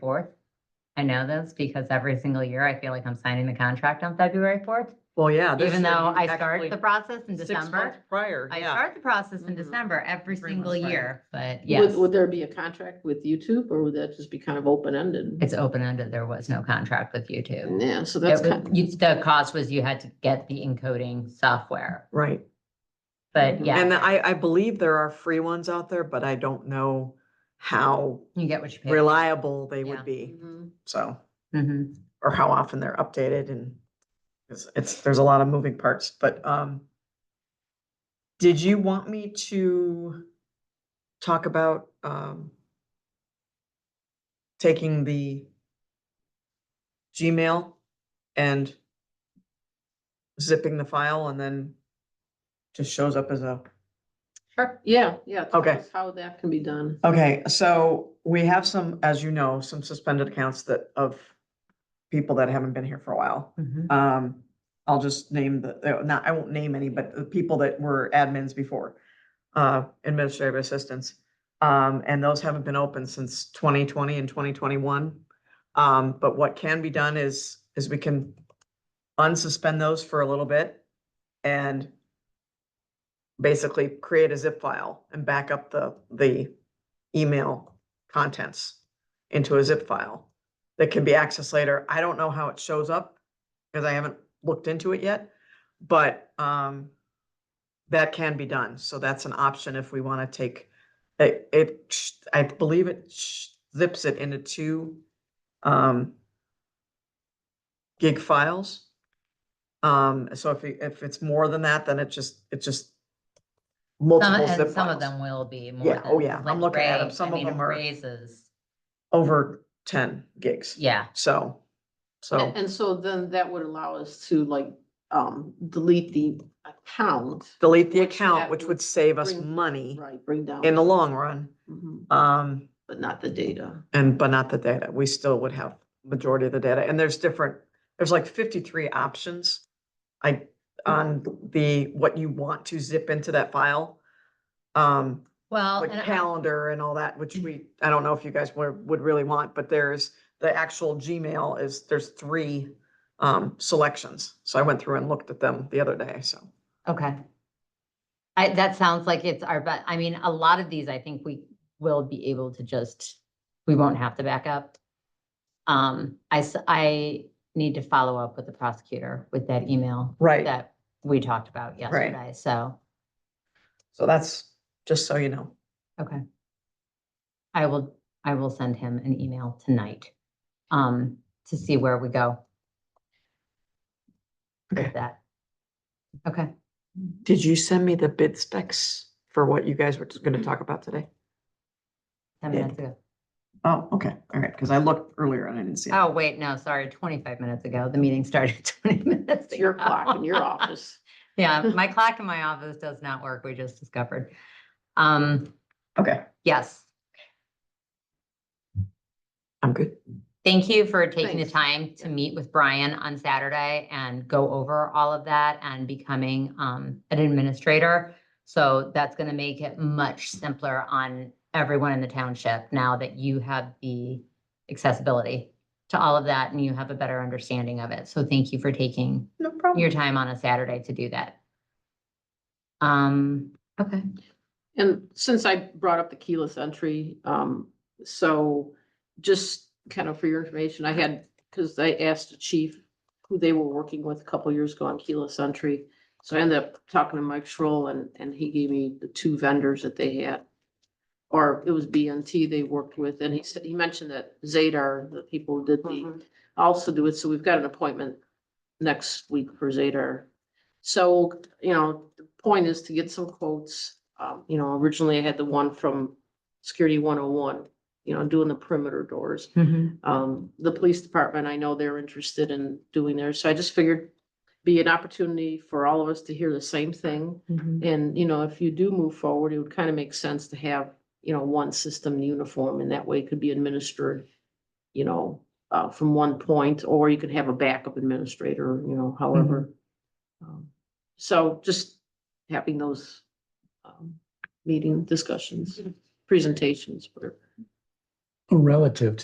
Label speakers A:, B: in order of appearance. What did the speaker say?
A: fourth. I know this because every single year I feel like I'm signing the contract on February fourth,
B: Well, yeah. this
A: even
B: year
A: though
B: you
A: I start
B: actually-
A: the process in
B: six
A: December.
B: months Prior,
A: I
B: yeah.
A: start the process in
B: Mhm.
A: December every
B: Three
A: single
B: months later.
A: year, but yes,
C: Would, would there be a contract with YouTube or would that just be kind of open ended?
A: it's open ended. There was no contract with YouTube.
C: Yeah, so that's
A: It
C: kind,
A: was, you- the cost was you had to get the encoding software,
B: Right.
A: but yeah,
B: Mm-hmm. And I, I believe there are free ones out there, but I don't know how
A: you get what you pay.
B: reliable they
A: Yeah.
B: would be.
C: Mhm.
B: So,
A: Mhm.
B: or how often they're updated and it's, it's, there's a lot of moving parts, but, um, did you want me to talk about, um, taking the Gmail and zipping the file and then just shows up as a
C: Sure. yeah, yeah. tell
B: Okay. Oh,
C: us How that can be done.
B: Okay, so we have some, as you know, some suspended accounts that of people that haven't been here for a while.
A: Mhm.
B: Um, I'll just name the, uh, not, I won't name any, but the people that were admins before, uh, administrative assistants. Um, and those haven't been open since twenty twenty and twenty twenty-one. Um, but what can be done is, is we can unsuspend those for a little bit and basically create a zip file and back up the, the email contents into a zip file that can be accessed later. I don't know how it shows up because I haven't looked into it yet, but um, that can be done. So that's an option if we want to take, it, it, sh- I believe it sh- zips it into two um, gig files. Um, so if, it- if it's more than that, then it just, it just
A: Some,
B: multiple zip
A: and some of
B: files
A: them will be more.
B: Yeah, oh
A: than-
B: yeah, I'm
A: like
B: looking at 'em.
A: Ray, I
B: Some of
A: mean,
B: them are-
A: Ray's is-
B: over ten gigs.
A: yeah.
B: So, so,
C: And, and so then that would allow us to like, um, delete the account,
B: delete the
C: which that
B: account, which would
C: would
B: save us
C: bring-
B: money
C: right, bring down.
B: in the long run.
C: Mhm,
B: Um,
C: But not the data.
B: and, but not the data. We still would have majority of the data. And there's different, there's like fifty-three options. I, on the, what you want to zip into that file. Um,
A: Well,
B: like
A: and I-
B: calendar and all that, which we, I don't know if you guys would, would really want, but there's the actual Gmail is, there's three um, selections. So I went through and looked at them the other day, so.
A: Okay. I, that sounds like it's our, but, I mean, a lot of these, I think we will be able to just, we won't have to back up. Um, I, s- I need to follow up with the prosecutor with that email
B: Right,
A: that we talked about yesterday, so,
B: so that's, just so you know.
A: okay. I will, I will send him an email tonight, um, to see where we go.
B: Okay.
A: With that. Okay,
B: Did you send me the bid specs for what you guys were just gonna talk about today?
A: ten
B: Good.
A: minutes ago.
B: Oh, okay, all right, because I looked earlier and I didn't see it.
A: Oh, wait, no, sorry, twenty-five minutes ago. The meeting started twenty minutes.
C: It's your
A: ago.
C: clock in your office.
A: Yeah, my clock in my office does not work, we just discovered. Um,
B: Okay,
A: yes,
B: I'm good.
A: thank you for taking the
C: Thanks.
A: time to meet with Brian on Saturday and go over all of that and becoming um an administrator. So that's gonna make it much simpler on everyone in the township now that you have the accessibility to all of that and you have a better understanding of it. So thank you for taking
B: No problem.
A: your time on a Saturday to do that. Um, okay,
C: And since I brought up the keyless entry, um, so just kind of for your information, I had, because I asked the chief who they were working with a couple years ago on keyless entry. So I ended up talking to Mike Schroll and, and he gave me the two vendors that they had. Or it was BNT they worked with, and he said, he mentioned that Zadar, the people who did
B: Mm-hmm.
C: the also do it, so we've got an appointment next week for Zadar. So, you know, the point is to get some quotes, um, you know, originally I had the one from Security one oh one, you know, doing the perimeter doors.
A: Mm-hmm.
C: Um, the police department, I know they're interested in doing theirs, so I just figured be an opportunity for all of us to hear the same thing. And, you know, if you do move forward, it would kind of make sense to have, you know, one system uniform and that way it could be administered, you know, uh, from one point, or you could have a backup administrator, you know, however. Um, So just having those, um, meeting discussions, presentations, whatever.
D: Relative to